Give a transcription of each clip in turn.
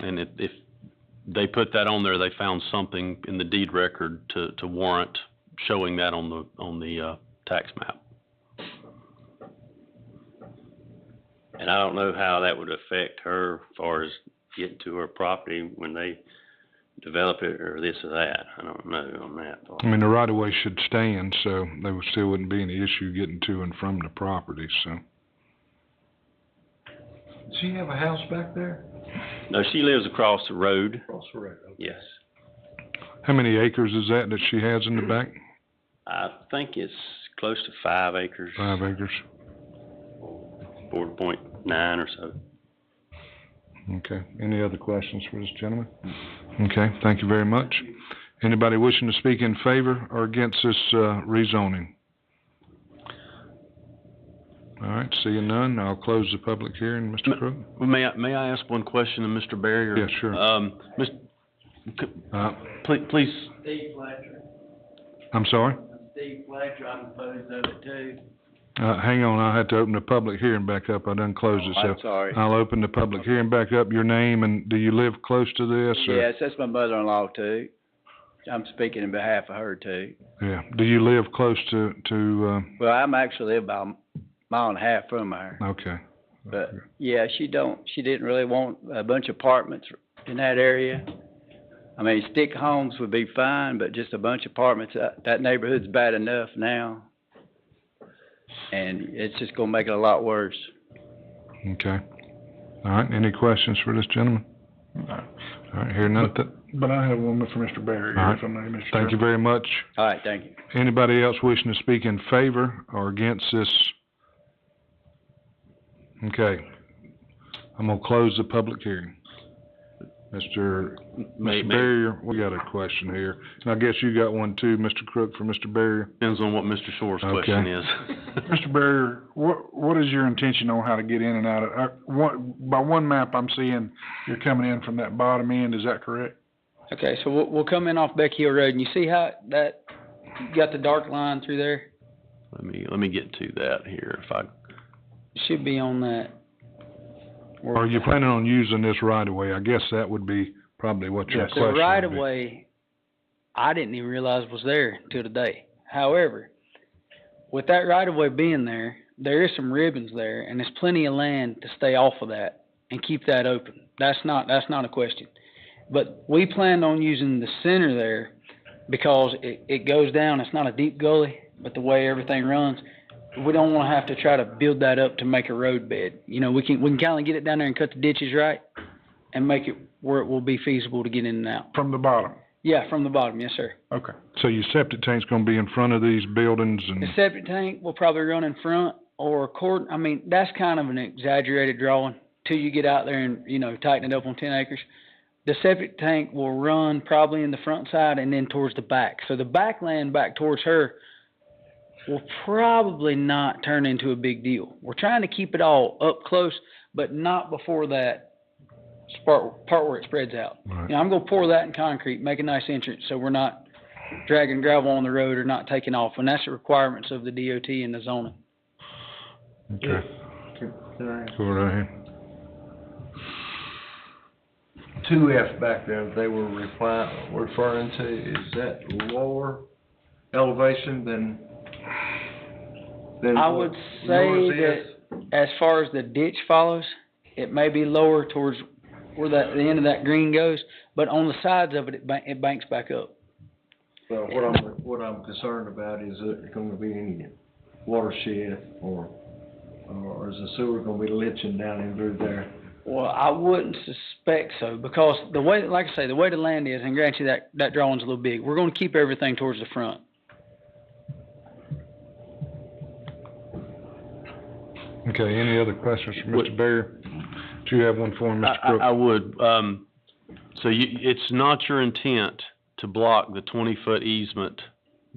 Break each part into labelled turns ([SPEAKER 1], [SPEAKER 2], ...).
[SPEAKER 1] And if, if they put that on there, they found something in the deed record to, to warrant showing that on the, on the, uh, tax map.
[SPEAKER 2] And I don't know how that would affect her as far as getting to her property when they develop it or this or that. I don't know on that part.
[SPEAKER 3] I mean, the right of way should stand, so there would, still wouldn't be any issue getting to and from the property, so.
[SPEAKER 4] Does she have a house back there?
[SPEAKER 2] No, she lives across the road,
[SPEAKER 4] Across the road. okay.
[SPEAKER 2] yes.
[SPEAKER 3] How many acres is that that she has in the back?
[SPEAKER 2] I think it's close to five acres,
[SPEAKER 3] Five acres?
[SPEAKER 2] four point nine or so.
[SPEAKER 3] Okay. Any other questions for this gentleman? Okay, thank you very much. Anybody wishing to speak in favor or against this, uh, rezoning? All right, seeing none, I'll close the public hearing, Mr. Crook.
[SPEAKER 1] Well, May I, may I ask one question to Mr. Barry? or-
[SPEAKER 3] Yeah, sure.
[SPEAKER 1] Um, Ms., c-
[SPEAKER 3] Uh,
[SPEAKER 1] please, please,
[SPEAKER 5] Steve Fletcher,
[SPEAKER 3] I'm sorry?
[SPEAKER 5] Steve Fletcher, I'm opposed of it too.
[SPEAKER 3] Uh, hang on, I had to open the public hearing back up. I done closed it, so.
[SPEAKER 6] I'm sorry.
[SPEAKER 3] I'll open the public hearing back up. Your name and do you live close to this or?
[SPEAKER 6] Yes, that's my mother-in-law too. I'm speaking in behalf of her too.
[SPEAKER 3] Yeah. Do you live close to, to,
[SPEAKER 6] Well, I'm actually about a mile and a half from her,
[SPEAKER 3] uh, okay.
[SPEAKER 6] but yeah, she don't, she didn't really want a bunch of apartments in that area. I mean, stick homes would be fine, but just a bunch of apartments, that, that neighborhood's bad enough now. And it's just gonna make it a lot worse.
[SPEAKER 3] Okay. All right, any questions for this gentleman? All right, hearing none. Th-
[SPEAKER 4] But I have one for Mr. Barry,
[SPEAKER 3] All right.
[SPEAKER 4] if I may, Mr.
[SPEAKER 3] Thank
[SPEAKER 4] Chairman.
[SPEAKER 3] you very much.
[SPEAKER 6] All right, thank you.
[SPEAKER 3] Anybody else wishing to speak in favor or against this? Okay. I'm gonna close the public hearing. Mr.
[SPEAKER 1] may, may-
[SPEAKER 3] Mr. Barrier, we got a question here. And I guess you got one too, Mr. Crook, for Mr. Barrier.
[SPEAKER 1] depends on what Mr. Shore's
[SPEAKER 3] Okay.
[SPEAKER 1] question is.
[SPEAKER 4] Mr. Barry, what, what is your intention on how to get in and out of, uh, what, by one map I'm seeing, you're coming in from that bottom end, is that correct?
[SPEAKER 7] Okay, so we'll, we'll come in off Beck Hill Road, and you see how that, you got the dark line through there?
[SPEAKER 1] Let me, let me get to that here if I,
[SPEAKER 7] It Should be on that. where-
[SPEAKER 3] Are you planning on using this right away? I guess that would be probably what your
[SPEAKER 4] Yes.
[SPEAKER 3] question
[SPEAKER 7] The
[SPEAKER 3] would be.
[SPEAKER 7] right of way, I didn't even realize was there till today. However, with that right of way being there, there is some ribbons there, and there's plenty of land to stay off of that and keep that open. That's not, that's not a question. But we planned on using the center there because it, it goes down, it's not a deep gully, but the way everything runs, we don't wanna have to try to build that up to make a road bed. You know, we can, we can kinda get it down there and cut the ditches right and make it where it will be feasible to get in and out.
[SPEAKER 4] From the bottom,
[SPEAKER 7] Yeah, from the bottom, yes, sir.
[SPEAKER 4] okay.
[SPEAKER 3] So your septic tank's gonna be in front of these buildings and,
[SPEAKER 7] The septic tank will probably run in front or accord, I mean, that's kind of an exaggerated drawing till you get out there and, you know, tighten it up on ten acres. The septic tank will run probably in the front side and then towards the back. So the back land back towards her will probably not turn into a big deal. We're trying to keep it all up close, but not before that part, part where it spreads out.
[SPEAKER 3] Right.
[SPEAKER 7] You know, I'm gonna pour that in concrete, make a nice entrance, so we're not dragging gravel on the road or not taking off, and that's the requirements of the DOT and the zoning.
[SPEAKER 3] okay, go right here.
[SPEAKER 8] two F back there they were replying, referring to, is that lower elevation than, than
[SPEAKER 7] I
[SPEAKER 8] what
[SPEAKER 7] would say
[SPEAKER 8] yours
[SPEAKER 7] that
[SPEAKER 8] is?
[SPEAKER 7] as far as the ditch follows, it may be lower towards where that, the end of that green goes, but on the sides of it, it bank, it banks back up.
[SPEAKER 8] Well, what I'm, what I'm concerned about is it gonna be any watershed or, or is the sewer gonna be leaching down in through there?
[SPEAKER 7] Well, I wouldn't suspect so, because the way, like I say, the way the land is, and grant you that, that drawing's a little big, we're gonna keep everything towards the front.
[SPEAKER 3] Okay, any other questions for
[SPEAKER 1] What-
[SPEAKER 3] Mr. Barrier? Do you have one for him,
[SPEAKER 1] I,
[SPEAKER 3] Mr.
[SPEAKER 1] I, I
[SPEAKER 3] Crook?
[SPEAKER 1] would, um, so you, it's not your intent to block the twenty-foot easement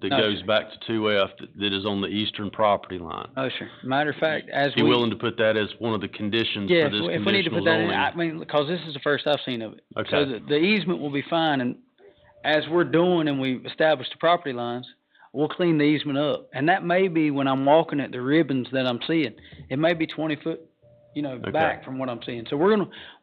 [SPEAKER 1] that
[SPEAKER 7] No,
[SPEAKER 1] goes
[SPEAKER 7] sir.
[SPEAKER 1] back to two F that is on the eastern property line?
[SPEAKER 7] Oh, sure. Matter of fact, as we.
[SPEAKER 1] Be willing to put that as one of the conditions
[SPEAKER 7] Yeah,
[SPEAKER 1] for
[SPEAKER 7] if
[SPEAKER 1] this
[SPEAKER 7] we- if we need to
[SPEAKER 1] conditional
[SPEAKER 7] put that in, I
[SPEAKER 1] zoning?
[SPEAKER 7] mean, because this is the first I've seen of it. So
[SPEAKER 1] Okay,
[SPEAKER 7] the, the easement will be fine, and as we're doing and we establish the property lines, we'll clean the easement up. And that may be when I'm walking at the ribbons that I'm seeing, it may be twenty foot, you know,
[SPEAKER 1] Okay.
[SPEAKER 7] back from what I'm seeing. So we're gonna,